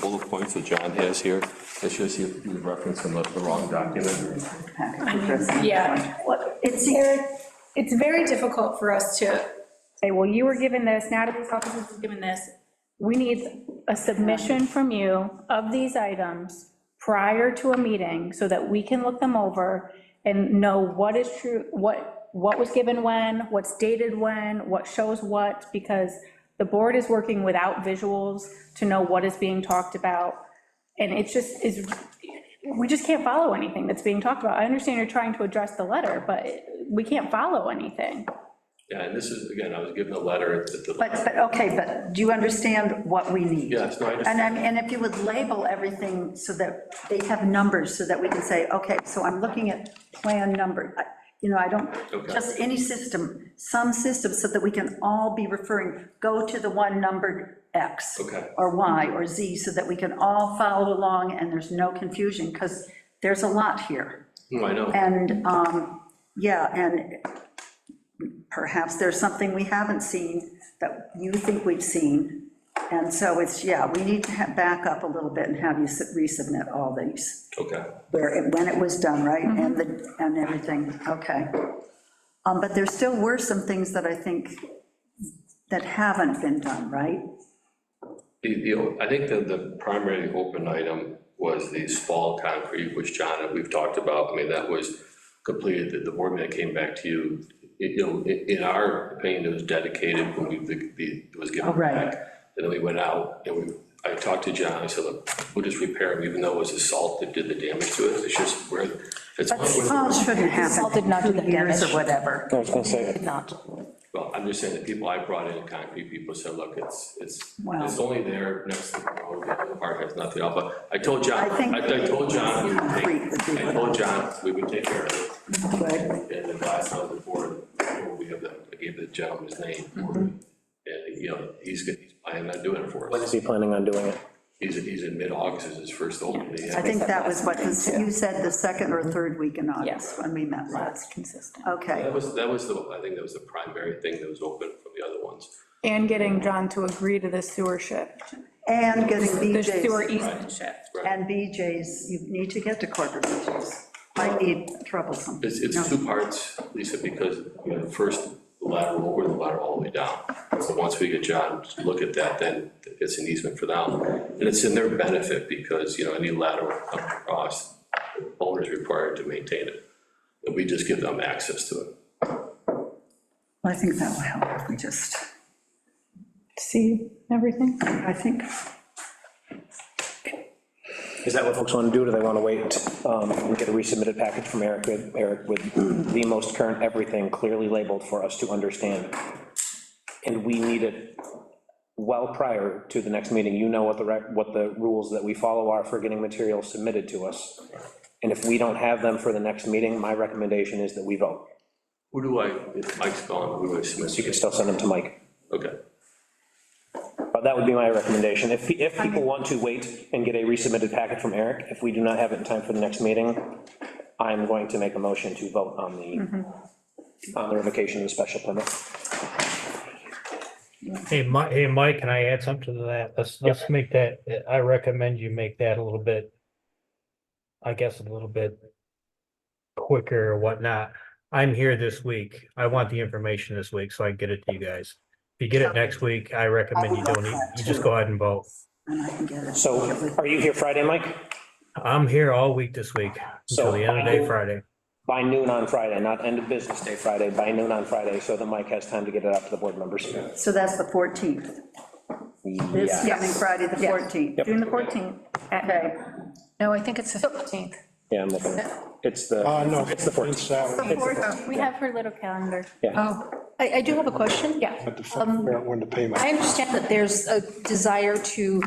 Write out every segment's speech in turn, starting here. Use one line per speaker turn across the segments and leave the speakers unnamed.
bullet points that John has here, it's just you you reference from the the wrong document.
Yeah, well, it's, it's very difficult for us to say, well, you were given this, Natalie's office was given this. We need a submission from you of these items prior to a meeting so that we can look them over and know what is true, what, what was given when, what's dated when, what shows what, because the board is working without visuals to know what is being talked about. And it's just, is, we just can't follow anything that's being talked about. I understand you're trying to address the letter, but we can't follow anything.
Yeah, and this is, again, I was given a letter at the.
But, but, okay, but do you understand what we need?
Yes, no, I just-
And I'm, and if you would label everything so that they have numbers, so that we can say, okay, so I'm looking at plan number, I- you know, I don't,
Okay.
just any system, some system, so that we can all be referring, go to the one numbered X.
Okay.
Or Y, or Z, so that we can all follow along and there's no confusion, because there's a lot here.
No, I know.
And, um, yeah, and perhaps there's something we haven't seen that you think we've seen. And so it's, yeah, we need to ha- back up a little bit and have you s- resubmit all these,
Okay,
where, it- when it was done, right?
Mm-hmm.
And the, and everything, okay. Um, But there still were some things that I think that haven't been done, right?
the, the, I think that the primary open item was the small concrete, which John, we've talked about, I mean, that was completed, the, the board man came back to you. It- You know, in, in our opinion, it was dedicated when we, the, the- it was given
Oh, right.
back. And then we went out, and we, I talked to John, I said, look, we'll just repair it, even though it was the salt that did the damage to it, it's just where, it's.
But salt shouldn't happen
Salt did not do
in
the
two years or
damage.
whatever.
I was gonna say,
Did not.
Well, I'm just saying that people I brought in, concrete people said, look, it's, it's,
Wow.
it's only there next to the road, but the park has nothing else, but I told John,
I think
I I told John, we
concrete
would
would be
take, I
what
told John, we would take care of
Good.
it. And the last time before, we have the, I gave the gentleman his name,
Mm-hmm.
and, you know, he's, gonna- he's planning on doing it for
when
us.
is he planning on doing it?
He's, he's in mid-August is his first opening.
I think that was what, because you said the second or third week in August, I mean, that last,
That's consistent.
okay.
That was, that was the, I think that was the primary thing that was open from the other ones.
And getting John to agree to the sewer shift,
And getting
the sewer e-
BJ's,
easement shift.
and BJ's, you need to get to corporate BJ's. I need troublesome.
It's, it's two parts, Lisa, because, you know, the first lateral, over the lateral all the way down. So once we get John to look at that, then it's an easement for them. And it's in their benefit because, you know, any lateral up across, owner's required to maintain it. And we just give them access to it.
I think that will help, if we just,
See everything?
I think,
Is that what folks want to do, do they want to wait um, and get a resubmitted package from Eric, with- Eric with the most current everything clearly labeled for us to understand? And we need it well prior to the next meeting, you know what the, rec- what the rules that we follow are for getting materials submitted to us. And if we don't have them for the next meeting, my recommendation is that we vote.
Who do I, if Mike's gone, who do I
So you
submit?
can still send them to Mike.
Okay,
But Uh, that would be my recommendation. If, if people want to wait and get a resubmitted packet from Eric, if we do not have it in time for the next meeting, I'm going to make a motion to vote on the, on the revocation of the special permit.
Hey, Mike, hey, Mike, can I add something to that? Let's, let's make that, I recommend you make that a little bit, I guess, a little bit quicker or whatnot. I'm here this week. I want the information this week, so I can get it to you guys. If you get it next week, I recommend you don't, e-, you just go ahead and vote.
and I can get it.
So are you here Friday, Mike?
I'm here all week this week,
So
until the end of day
I-
Friday.
By noon on Friday, not end of business day Friday, by noon on Friday, so that Mike has time to get it out to the board members.
So that's the 14th, this
Yeah,
coming Friday, the 14th.
June the 14th.
Okay,
No, I think it's the 15th.
yeah, I'm looking. It's the,
Uh, no,
it's the 14th.
it's that one.
We have her little calendar.
Oh, I, I do have a question.
Yeah.
Have to figure out when to pay
I
my,
understand that there's a desire to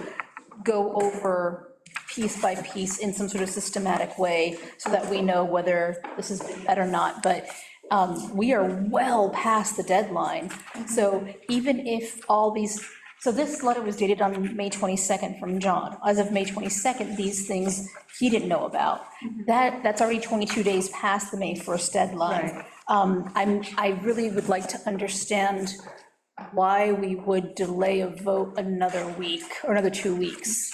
go over piece by piece in some sort of systematic way so that we know whether this is bad or not, but um, we are well past the deadline. So even if all these, so this letter was dated on May 22nd from John. As of May 22nd, these things he didn't know about. That, that's already 22 days past the May 1st deadline.
Right.
Um, I'm, I really would like to understand why we would delay a vote another week, or another two weeks.